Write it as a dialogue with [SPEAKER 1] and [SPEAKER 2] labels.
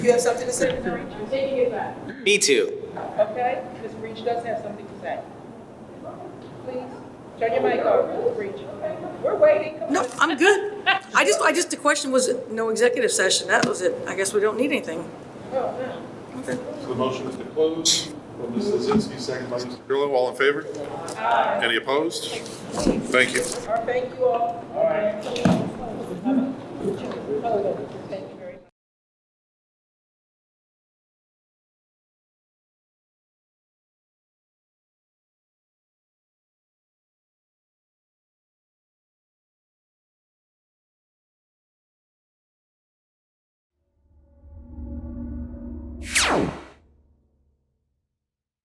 [SPEAKER 1] You have something to say?
[SPEAKER 2] Ms. Reach, I'm taking it back,
[SPEAKER 3] Me too.
[SPEAKER 2] okay? Ms. Reach does have something to say. Please, turn your mic off, Ms. Reach. We're waiting. Come
[SPEAKER 4] No,
[SPEAKER 2] on.
[SPEAKER 4] I'm good. I just, I just, the question was no executive session. That was it. I guess we don't need anything.
[SPEAKER 2] No, no.
[SPEAKER 5] So the motion is to close from Mr. Lozinski, second by Mr. Grillo. All in favor? Any opposed? Thank you.
[SPEAKER 2] All right, thank you all.